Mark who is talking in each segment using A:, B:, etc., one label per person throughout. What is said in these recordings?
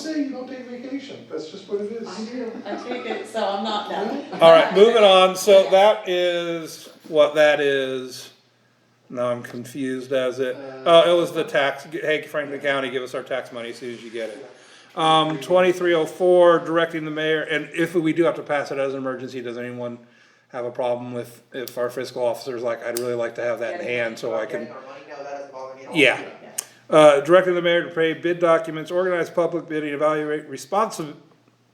A: say you don't take vacation, that's just what it is.
B: I do, I take it, so I'm not that.
C: Alright, moving on, so that is what that is. Now I'm confused as it, oh, it was the tax, hey Franklin County, give us our tax money as soon as you get it. Um, twenty-three oh four, directing the mayor, and if we do have to pass it as an emergency, does anyone have a problem with, if our fiscal officer's like, I'd really like to have that in hand so I can.
D: Getting our money, no, that doesn't bother me at all.
C: Yeah. Uh, directing the mayor to pay bid documents, organize public bidding, evaluate responsive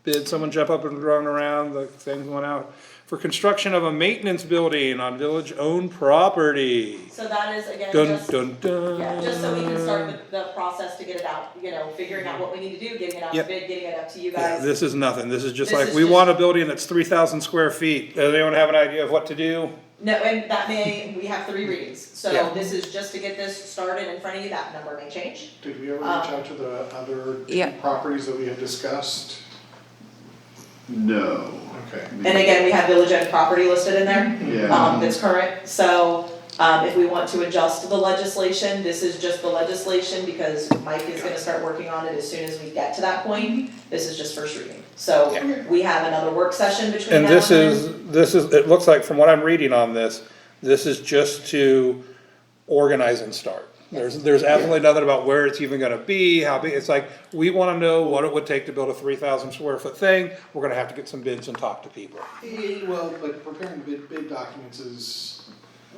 C: bid, someone jump up and run around, the things went out. For construction of a maintenance building on village-owned property.
B: So that is again,
C: Dun,
B: just,
C: dun, dun.
B: yeah, just so we can start the, the process to get it out, you know, figuring out what we need to do, getting it out to
C: Yep.
B: bid, getting it up to you
C: Yeah,
B: guys.
C: This is nothing, this is just
B: This
C: like,
B: is
C: we
B: just-
C: want a building that's three thousand square feet, does anyone have an idea of what to do?
B: No, and that may, we have three readings,
C: Yeah.
B: so this is just to get this started in front of you, that number may change.
A: Did we ever reach
B: Uh,
A: out to the other
E: Yeah.
A: properties that we had discussed?
F: No.
A: Okay.
C: Mm-hmm.
B: And again, we have village owned property listed in there,
F: Yeah,
B: um, that's current, so, um, if we want to adjust the legislation, this is just the legislation because Mike is gonna start working on it as soon as we get to that point.
C: Mm-hmm.
B: This is just first reading, so we have another work session between
C: And
B: now
C: this
B: then.
C: is, this is, it looks like from what I'm reading on this, this is just to organize and start. There's, there's absolutely nothing about where it's even gonna be, how big, it's like, we wanna know what it would take to build a three thousand square foot thing. We're gonna have to get some bids and talk to people.
A: Eh,
B: um,
A: Well, but preparing bid, bid documents is,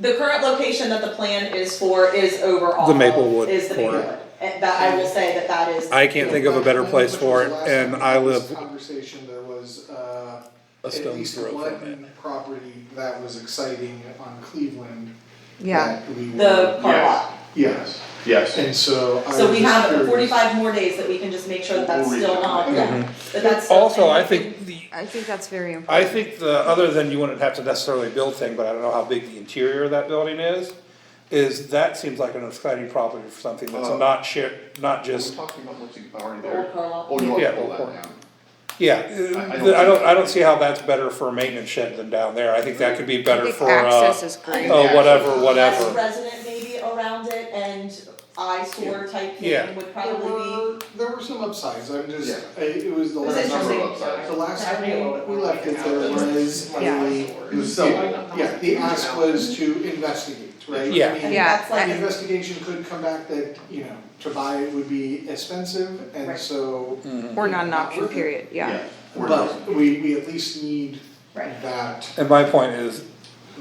B: The current location that the plan is for is overall.
C: The Maplewood
B: Is the
C: corner.
B: Maplewood, and that, I will say that that is.
C: I can't think of a better place for it,
A: Which was last
C: and
A: time
C: I
A: we had this
C: live,
A: Conversation, there was, uh,
C: A
A: at
C: stone's
A: least
C: throw from
A: one property that was exciting on Cleveland.
E: Yeah,
A: that we
B: The
A: were-
B: car
F: Yes.
B: lot,
A: Yes,
F: yes.
A: and so I
B: so
A: was
B: we have
A: curious.
B: forty-five more days that we can just make sure that that's
F: We'll
B: still
F: read it.
B: on, yeah, that that's. still-
C: Mm-hmm. also,
B: and
C: I
B: we can-
C: think the,
E: I think that's very
C: I
E: important.
C: think the, other than you wouldn't have to necessarily build thing, but I don't know how big the interior of that building is. Is that seems like an exciting property for something that's
A: Oh.
F: Uh,
C: not shared, not
F: We're
C: just
F: talking about what's already
B: The old
F: there.
B: car lot.
F: Oh, you want
C: Yeah,
F: to pull that
C: old-
F: down?
C: Yeah,
F: I
C: uh,
F: don't
C: I don't,
F: see-
C: I don't see how that's better for a maintenance shed than down there, I think that could be
E: I
C: better
E: think
C: for, uh,
E: access is
B: I-
E: great.
C: uh, whatever,
B: Less
C: whatever.
B: resident maybe around it and eyesore type
C: Yeah.
B: thing would
A: There
B: probably
A: were, there were some upsides, I'm just,
F: Yeah.
A: I- it was the
B: Was
A: last
B: it
A: number
F: Number
B: interesting?
F: of upsides.
A: The last
B: Yeah, I really
A: time we left it, there was a.
E: Yeah.
F: It was selling.
A: Yeah, the ask was to investigate, right?
C: Yeah.
A: I mean,
B: be,
E: Yeah,
B: that's like.
A: The investigation could come back that, you know, to buy it would be expensive and
B: Right.
A: so,
C: Mm-hmm.
E: Or non-option period, yeah.
F: We're
A: but we, we at least need
B: Right.
A: that.
C: And my point is,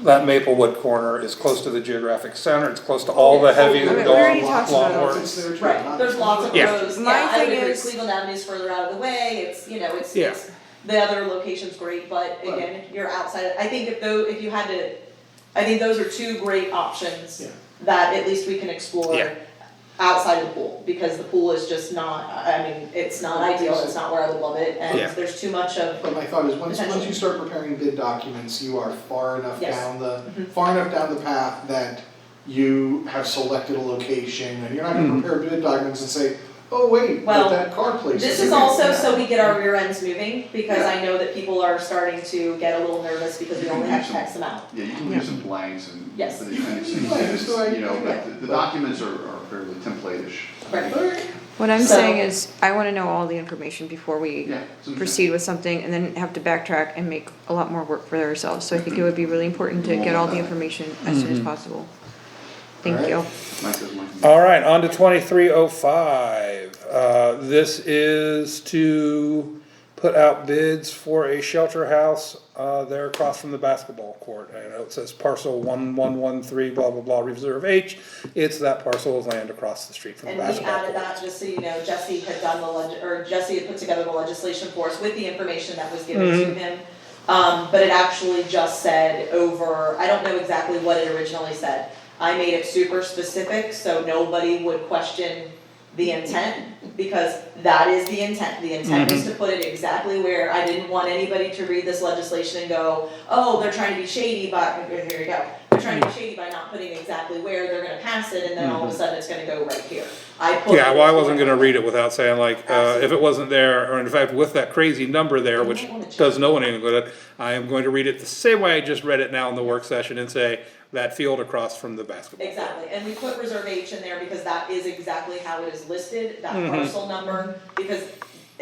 C: that Maplewood corner is close to the geographic center, it's close to all the heavy
E: Okay, we
C: lawn,
E: already talked about
C: lawn
E: it.
A: It's
C: works.
A: there too,
B: Right,
A: not-
B: there's lots of
C: Yeah.
B: roads, yeah,
E: My
B: I would
E: thing
B: agree,
E: is-
B: Cleveland Avenue's further out of the way, it's, you know, it's,
C: Yeah.
B: it's, the other location's great, but again, if you're outside, I think if though, if you had to, I think those are two great options
A: Yeah.
B: that at least we can explore
C: Yeah.
B: outside of the pool, because the pool is just not, I I mean, it's not ideal, it's not where I would love it,
C: Yeah.
B: and there's too much of,
A: But my thought is, once, once
B: Potentially.
A: you start preparing bid documents, you are far enough
B: Yes. Mm-hmm.
A: down the, far enough down the path that you have selected a location, and you're not gonna prepare bid documents and say, oh, wait, but
B: Well,
A: that car place is.
B: This is also so we get our rear ends moving, because I know that people are starting to get a little nervous because we only have X amount.
F: Yeah, you can leave some blanks and.
B: Yes.
F: so that You can see,
A: Blanks, so I-
F: you know, but the- the documents are are fairly template-ish.
B: Right.
E: What I'm
B: So-
E: saying is, I wanna know all the information before we
F: Yeah. it's interesting.
E: proceed with something and then have to backtrack and make a lot more work for ourselves. So I think it would be really important to get all the information as soon as possible. Thank you.
F: Mike says Mike.
C: Alright, on to twenty-three oh five, uh, this is to put out bids for a shelter house, uh, there across from the basketball court. I know it says parcel one one one three, blah, blah, blah, reserve H, it's that parcel of land across the street from the
B: And we
C: basketball
B: added
C: court.
B: that, just so you know, Jesse had done the leg, or Jesse had put together the legislation for us with the information that was given to
C: Mm-hmm.
B: him. Um, but it actually just said over, I don't know exactly what it originally said. I made it super specific, so nobody would question the intent, because that is the intent. The intent
C: Mm-hmm.
B: is to put it exactly where, I didn't want anybody to read this legislation and go, oh, they're trying to be shady, but, here you go. They're trying to be shady by not putting exactly where they're gonna pass it, and then all of a sudden it's gonna go right here. I put.
C: Mm-hmm. Yeah, well, I wasn't gonna read it without saying like, uh, if it wasn't there, or in fact, with that crazy number there, which does no one any good. I am going to read it the same way I just read it now in the work session and say, that field across from the basketball.
B: Exactly, and we
C: Mm-hmm.
B: put reserve H in there because that is exactly how it is listed, that parcel number, because